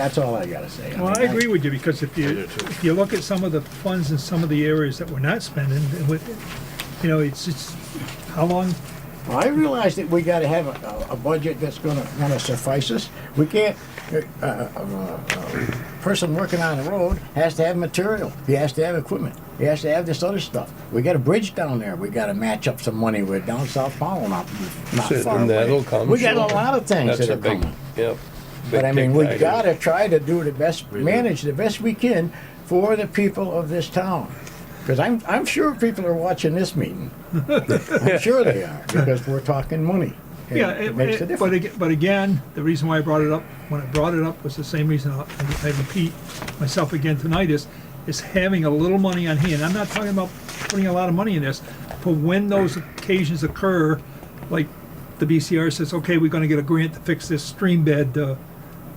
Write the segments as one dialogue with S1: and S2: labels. S1: That's all I gotta say.
S2: Well, I agree with you, because if you, if you look at some of the funds in some of the areas that we're not spending, it would- you know, it's, it's, how long,
S1: Well, I realize that we gotta have a, a budget that's gonna, gonna suffice us. We can't, uh, uh, a person working on the road has to have material, he has to have equipment, he has to have this other stuff. We got a bridge down there, we gotta match up some money with down South Powell, not, not
S3: Shit,
S1: far away.
S3: and that'll come,
S1: We got
S3: sure.
S1: a lot of things that
S3: That's a
S1: are
S3: big,
S1: coming.
S3: yep.
S1: But I
S3: big
S1: mean, we
S3: ticket item.
S1: gotta try to do the best, manage the best we can for the people of this town. Because I'm, I'm sure people are watching this meeting. I'm sure they are, because we're talking money. and
S2: yeah,
S1: It
S2: it-
S1: makes a
S2: it- but
S1: difference.
S2: again, but again, the reason why I brought it up, when I brought it up was the same reason I I repeat myself again tonight is, is having a little money on hand, I'm not talking about putting a lot of money in this, but when those occasions occur, like the BCR says, okay, we're gonna get a grant to fix this stream bed, uh,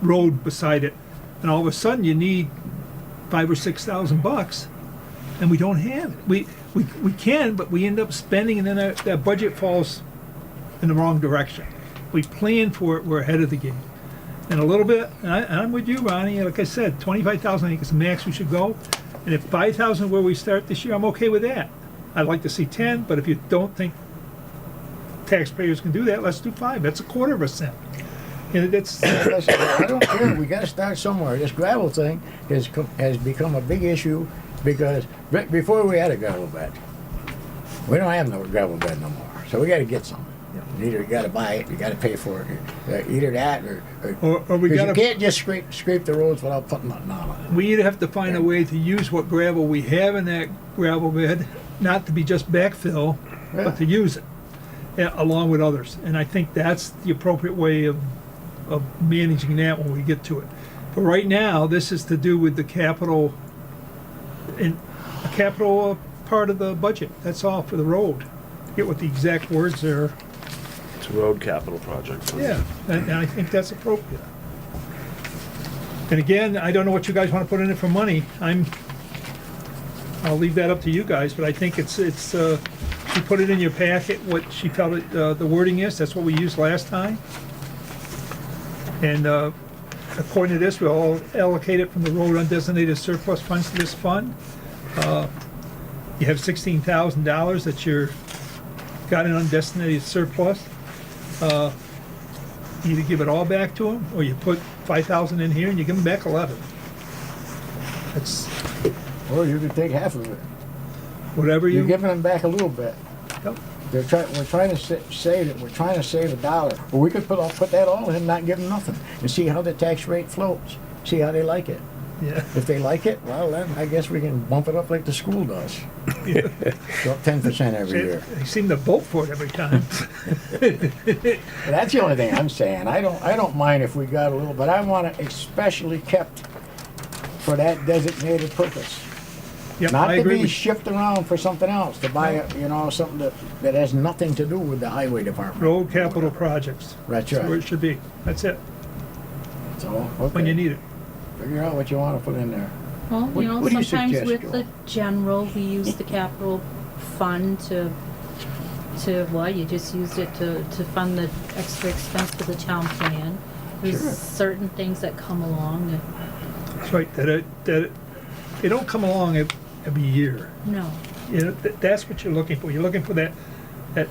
S2: road beside it, and all of a sudden you need five or six thousand bucks, and we don't have it. We, we, we can, but we end up spending, and then that, that budget falls in the wrong direction. We plan for it, we're ahead of the game. And a little bit, and, I, and I'm with you, Ronnie, like I said, twenty-five thousand, I think is the max we should go. And if five thousand where we start this year, I'm okay with that. I'd like to see ten, but if you don't think taxpayers can do that, let's do five. That's a quarter of a cent. And that's,
S1: Listen, I don't care, we gotta start somewhere. This gravel thing has, co- has become a big issue because, be- before we had a gravel bed. We don't have no gravel bed no more, so we gotta get some. Either you gotta buy it, you gotta pay for it, uh, either that or, or
S2: or, or we
S1: Because you
S2: gotta,
S1: can't just scrape, scrape the roads without putting nothing on
S2: we either have to find a way to use what gravel we have in that gravel bed, not to be just backfill,
S1: Yeah.
S2: but to use it, yeah, along with others. And I think that's the appropriate way of, of managing that when we get to it. But right now, this is to do with the capital, in, a capital uh, part of the budget, that's all for the road. Get what the exact words are,
S4: It's a road capital project.
S2: yeah, and, and I think that's appropriate. And again, I don't know what you guys wanna put in it for money, I'm, I'll leave that up to you guys, but I think it's, it's, uh, she put it in your packet, what she felt it, uh, the wording is, that's what we used last time. And, uh, according to this, we'll allocate it from the road undesignated surplus funds to this fund. Uh, You have sixteen thousand dollars that you're, got in undesignated surplus either give it all back to them, or you put five thousand in here and you give them back eleven. That's
S1: it. Or you could take half of it.
S2: whatever
S1: You're
S2: you,
S1: giving them back a little bit.
S2: Yep.
S1: They're trying, we're trying to sa- save it, we're trying to save a dollar. Well, we could put, all- put that all in and not give them nothing and see how the tax rate floats, see how they like it.
S2: yeah,
S1: If they like it, well, then I guess we can bump it up like the school does. Go up ten percent every
S2: they
S1: year.
S2: they seem to vote for it every time.
S1: But That's the only thing I'm saying. I don't, I don't mind if we got a little, but I want it especially kept for that designated purpose.
S2: Yep,
S1: Not
S2: I
S1: to
S2: agree
S1: be
S2: with you.
S1: shipped around for something else, to buy, a- you know, something that, that has nothing to do with the highway department.
S2: Road capital projects,
S1: That's
S2: that's where it
S1: right.
S2: should be, that's it,
S1: So,
S2: when you
S1: okay,
S2: need it.
S1: figure out what you wanna put in there.
S5: Well,
S1: What-
S5: you know,
S1: what do you
S5: sometimes
S1: suggest,
S5: with
S1: Joel?
S5: the general, we use the capital fund to, to, well, you just used it to, to fund the extra expense for the town plan. There's
S1: Sure.
S5: certain things that come along that,
S2: That's right, that it, that it, they don't come along ev- every year.
S5: no,
S2: You know, th- that's what you're looking for, you're looking for that, that,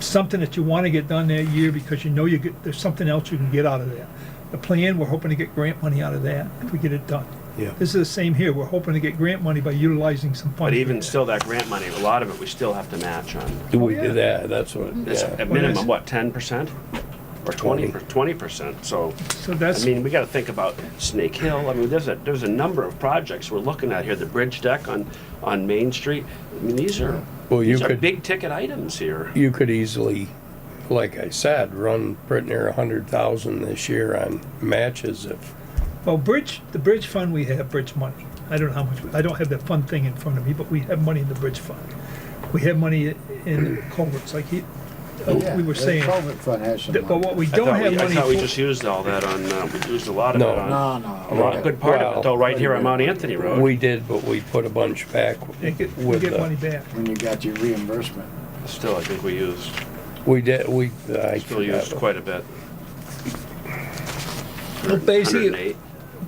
S2: something that you wanna get done that year because you know you get, there's something else you can get out of that. The plan, we're hoping to get grant money out of that, if we get it done.
S3: Yeah.
S2: This is the same here, we're hoping to get grant money by utilizing some funds.
S4: But even still, that grant money, a lot of it, we still have to match on.
S3: Do we
S2: Oh, yeah.
S3: do
S2: Mm-hmm.
S3: that? That's what,
S4: It's
S3: yeah.
S4: at minimum, what, ten percent? Or twenty, twenty percent, so,
S2: So
S4: I
S2: that's,
S4: mean, we gotta think about Snake Hill, I mean, there's a, there's a number of projects we're looking at here, the bridge deck on, on Main Street. I mean, these are,
S3: Well, you
S4: these are
S3: could-
S4: big ticket items here.
S3: You could easily, like I said, run pretty near a hundred thousand this year on matches if,
S2: well, bridge, the bridge fund, we have bridge money. I don't know how much, I don't have that fund thing in front of me, but we have money in the bridge fund. We have money in culverts, like he,
S1: Oh, Yeah,
S2: uh, we were
S1: the
S2: saying.
S1: Culvert fund has some
S2: But
S1: money.
S2: what we
S4: I
S2: don't
S4: thought we-
S2: have money
S4: I thought we
S2: for-
S4: just used all that on, uh, we used a lot of it
S3: No.
S4: on,
S1: No, no.
S4: a lot, a good part of it, though, right here on Mount Anthony Road.
S3: we did, but we put a bunch back
S2: They
S3: with
S2: get, we get money
S3: the.
S2: back.
S1: When you got your reimbursement.
S4: Still, I think we used,
S3: We did, we, I
S4: still used
S3: forgot.
S4: quite a bit. for
S2: Well, basically-
S4: 108.